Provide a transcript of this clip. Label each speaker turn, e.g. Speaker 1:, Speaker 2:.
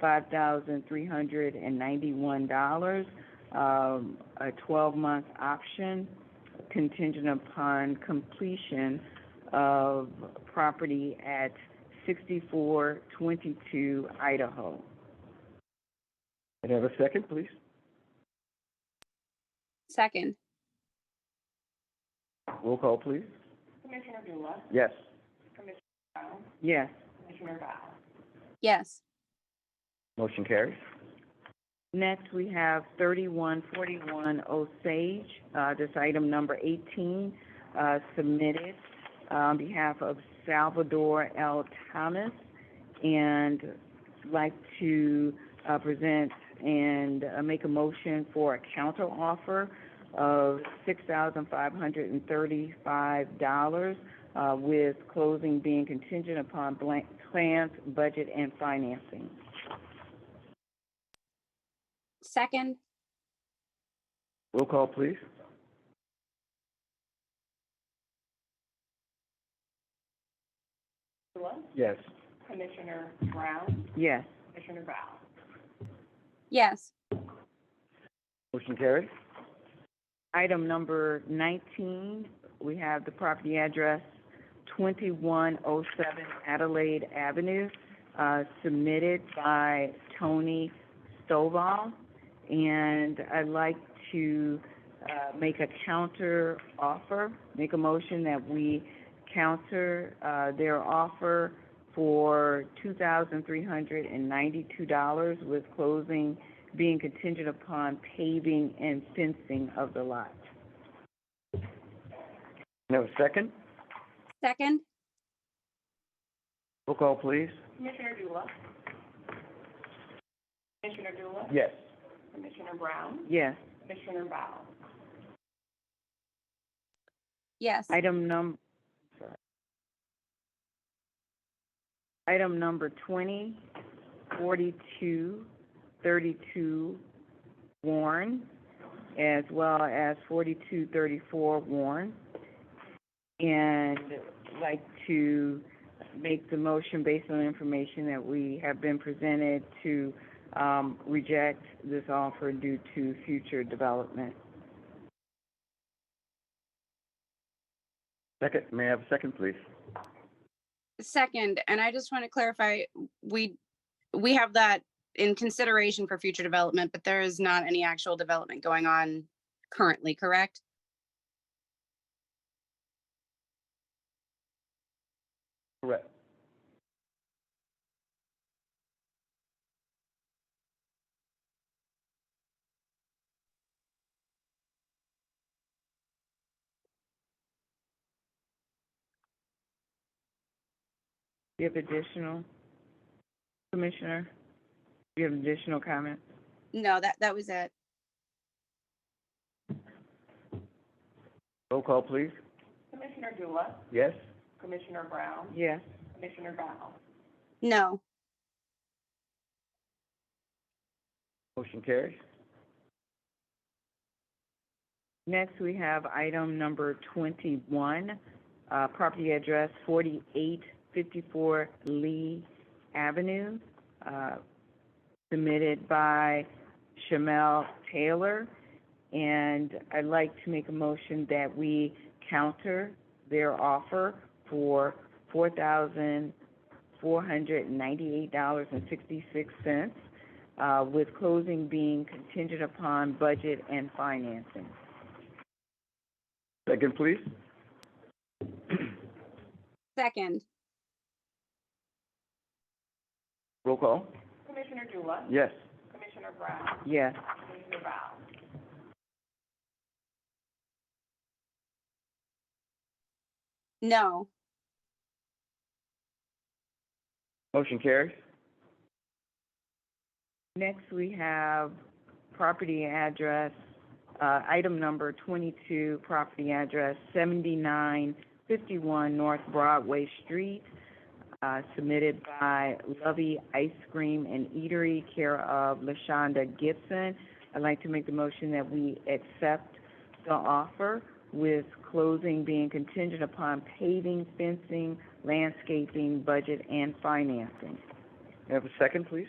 Speaker 1: five thousand three hundred and ninety-one dollars, um, a twelve-month option contingent upon completion of property at sixty-four twenty-two Idaho.
Speaker 2: Can I have a second, please?
Speaker 3: Second,
Speaker 2: Roll call, please. Commissioner Dula? Yes.
Speaker 1: Yes.
Speaker 3: yes.
Speaker 2: Motion carries.
Speaker 1: Next, we have thirty-one forty-one Osage, uh, this item number eighteen, uh, submitted uh, on behalf of Salvador L. Thomas, and like to, uh, present and uh, make a motion for a counter offer of six thousand five hundred and thirty-five dollars, uh, with closing being contingent upon blank, plans, budget, and financing.
Speaker 3: Second,
Speaker 2: Roll call, please. Yes.
Speaker 1: Yes.
Speaker 3: yes.
Speaker 2: Motion carries.
Speaker 1: Item number nineteen, we have the property address twenty-one oh seven Adelaide Avenue, uh, submitted by Tony Stovall. And I'd like to, uh, make a counter offer, make a motion that we counter, uh, their offer for two thousand three hundred and ninety-two dollars with closing being contingent upon paving and fencing of the lot.
Speaker 2: Can I have a second?
Speaker 3: Second,
Speaker 2: Roll call, please. Commissioner Dula? Commissioner Dula? Yes.
Speaker 1: Yes.
Speaker 3: yes.
Speaker 1: Item num- sorry. Item number twenty, forty-two, thirty-two Warren, as well as forty-two, thirty-four Warren. And like to make the motion based on the information that we have been presented to, um, reject this offer due to future development.
Speaker 2: Second, may I have a second, please?
Speaker 3: Second, and I just want to clarify, we, we have that in consideration for future development, but there is not any actual development going on currently, correct?
Speaker 2: Correct.
Speaker 1: Do you have additional, Commissioner? Do you have additional comments?
Speaker 3: No, that, that was it.
Speaker 2: Roll call, please. Commissioner Dula? Yes.
Speaker 1: Yes.
Speaker 3: No,
Speaker 2: Motion carries.
Speaker 1: Next, we have item number twenty-one, uh, property address forty-eight fifty-four Lee Avenue, uh, submitted by Shamel Taylor. And I'd like to make a motion that we counter their offer for four thousand four hundred ninety-eight dollars and sixty-six cents, uh, with closing being contingent upon budget and financing.
Speaker 2: Second, please.
Speaker 3: second,
Speaker 2: Roll call. Commissioner Dula? Yes.
Speaker 1: Yes.
Speaker 3: no,
Speaker 2: Motion carries.
Speaker 1: Next, we have property address, uh, item number twenty-two, property address seventy-nine fifty-one North Broadway Street, uh, submitted by Lovey Ice Cream and Eatery, care of LaShonda Gibson. I'd like to make the motion that we accept the offer with closing being contingent upon paving, fencing, landscaping, budget, and financing.
Speaker 2: May I have a second, please?